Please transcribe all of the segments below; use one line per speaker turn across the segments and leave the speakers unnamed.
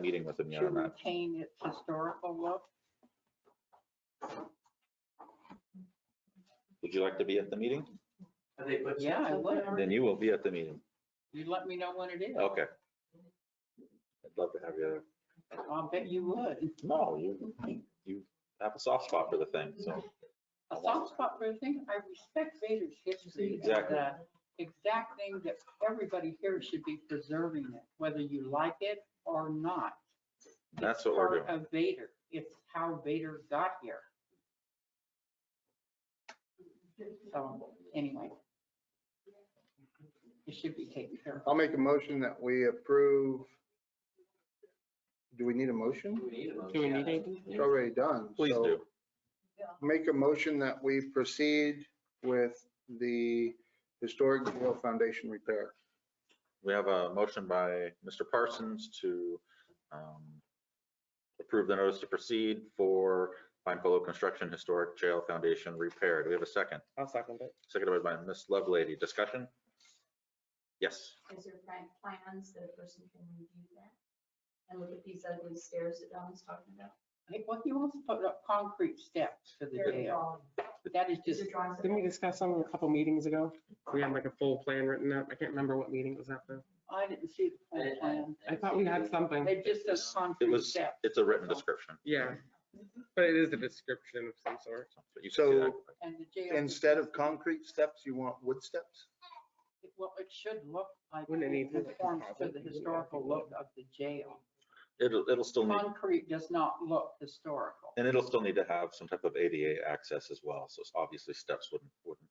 meeting with them yet
to
on that.
retain its historical look.
Would you like to be at the meeting?
Have they put?
Yeah, I
something
would.
there?
Then you will be at the meeting.
You let me know when it is.
Okay. I'd love to have you there.
I'll bet you would.
No, you, you have a soft spot for the thing, so.
A soft spot for the thing, I respect Vader's history. and
Exactly.
the Exact thing that everybody here should be preserving it, whether you like it or not.
That's what we're
Part Of Vader. It's how Vader got here. So anyway. It should be taken care of.
I'll make a motion that we approve. Do we need a motion?
Do we need a motion?
Do we need
Yeah.
anything?
It's already done.
Please
so
do.
Make a motion that we proceed with the historic jail foundation repair.
We have a motion by Mr. Parsons to um, approve the notice to proceed for Pine Hollow Construction Historic Jail Foundation repair. Do we have a second?
I'll second it.
Seconded by Ms. Lovelady. Discussion? Yes.
Is there plan- plans that a person can review that? And look at these ugly stairs that Don's talking about?
I think what he wants to put up concrete steps for the
They're
jail.
drawing-
That is
These
just
are drawings. that-
Didn't we discuss something a couple meetings ago? We had like a full plan written up. I can't remember what meeting it was at though.
I didn't see the
I
full
didn't-
plan.
I thought we had something.
They just says
It
concrete
was,
steps.
it's a written description.
Yeah, but it is a description of some sort.
but you can see that.
And the jail.
Instead of concrete steps, you want wood steps?
Well, it should look like.
Wouldn't it need to-
conforms to the historical look of the jail.
It'll, it'll still need,
Concrete does not look historical.
and it'll still need to have some type of ADA access as well. So it's obviously steps wouldn't, wouldn't,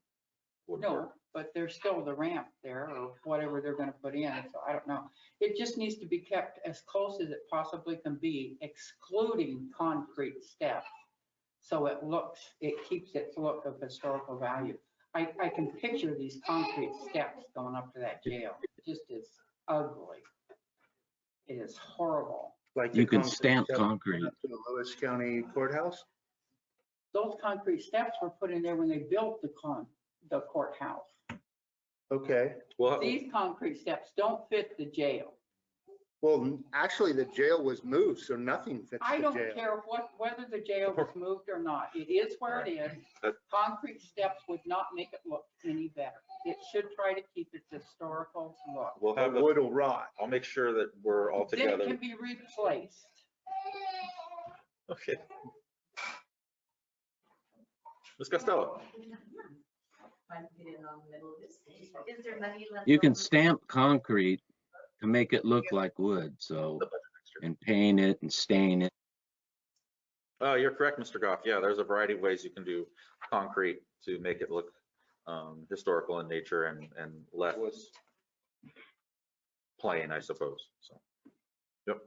wouldn't
No,
work.
but there's still the ramp there or whatever they're gonna put in, so I don't know. It just needs to be kept as close as it possibly can be, excluding concrete steps. So it looks, it keeps its look of historical value. I, I can picture these concrete steps going up to that jail. It just is ugly. It is horrible.
Like the
You can
concrete
stamp
steps
concrete.
up To the Lewis County Courthouse?
Those concrete steps were put in there when they built the con, the courthouse.
Okay.
Well,
These concrete steps don't fit the jail.
Well, actually, the jail was moved, so nothing fits
I
the
don't
jail.
care what, whether the jail was moved or not, it is where it is.
That-
Concrete steps would not make it look any better. It should try to keep its historical look.
we'll have,
The
a-
wood will rot.
I'll make sure that we're all
Then it
together.
can be replaced.
Okay. Ms. Costello,
Might fit in on the middle of this. Is there money left?
You can
over?
stamp concrete to make it look like wood, so, and paint it and stain it.
oh, you're correct, Mr. Goff. Yeah, there's a variety of ways you can do concrete to make it look um, historical in nature and, and less plain, I suppose, so. Yep.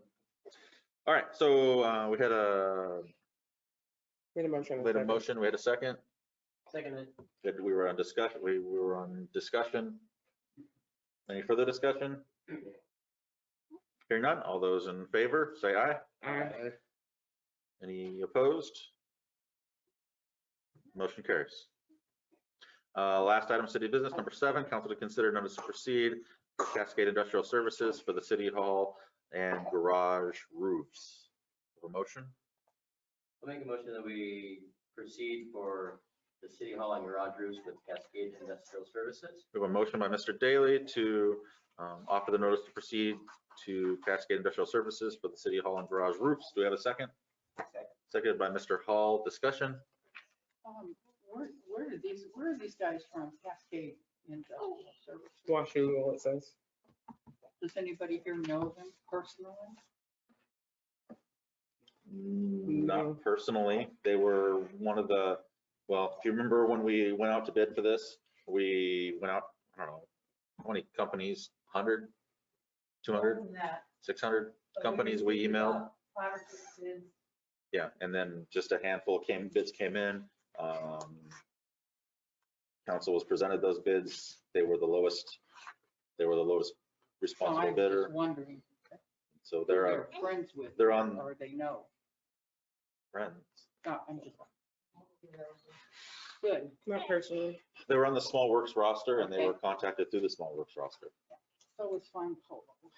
All right, so uh, we had a,
Made a motion. and
we had a
second.
motion, we had a second,
Second, it.
that we were on discussion, we we were on discussion. Any further discussion? Hearing none, all those in favor, say aye.
Aye.
Any opposed? Motion carries. Uh, Last item, city business, number seven, council to consider notice to proceed for Cascade Industrial Services for the city hall and garage roofs. Have A motion?
I'll make a motion that we proceed for the city hall and garage roofs with Cascade Industrial Services.
We have a motion by Mr. Daly to um, offer the notice to proceed to Cascade Industrial Services for the city hall and garage roofs. Do we have a second?
Second.
Seconded by Mr. Hall. Discussion?
Um, Where, where are these, where are these guys from Cascade Industrial Service?
Washougal, it says.
Does anybody here know them personally?
Mm,
No.
Not personally. They were one of the, well, if you remember when we went out to bid for this, we went out, I don't know, how many companies, 100, 200,
That-
600 companies we emailed?
Flower pieces.
Yeah, and then just a handful came, bids came in. um, Council was presented those bids. They were the lowest, they were the lowest
So Oh,
responsible
I was just
bidder.
wondering. if
So they're uh,
Friends with.
they're
them
on-
Or they know.
friends.
No, I'm just, good.
Not personally.
They were on the Small Works roster and they
Okay.
were contacted through the Small Works roster.
So it's fine, Polo.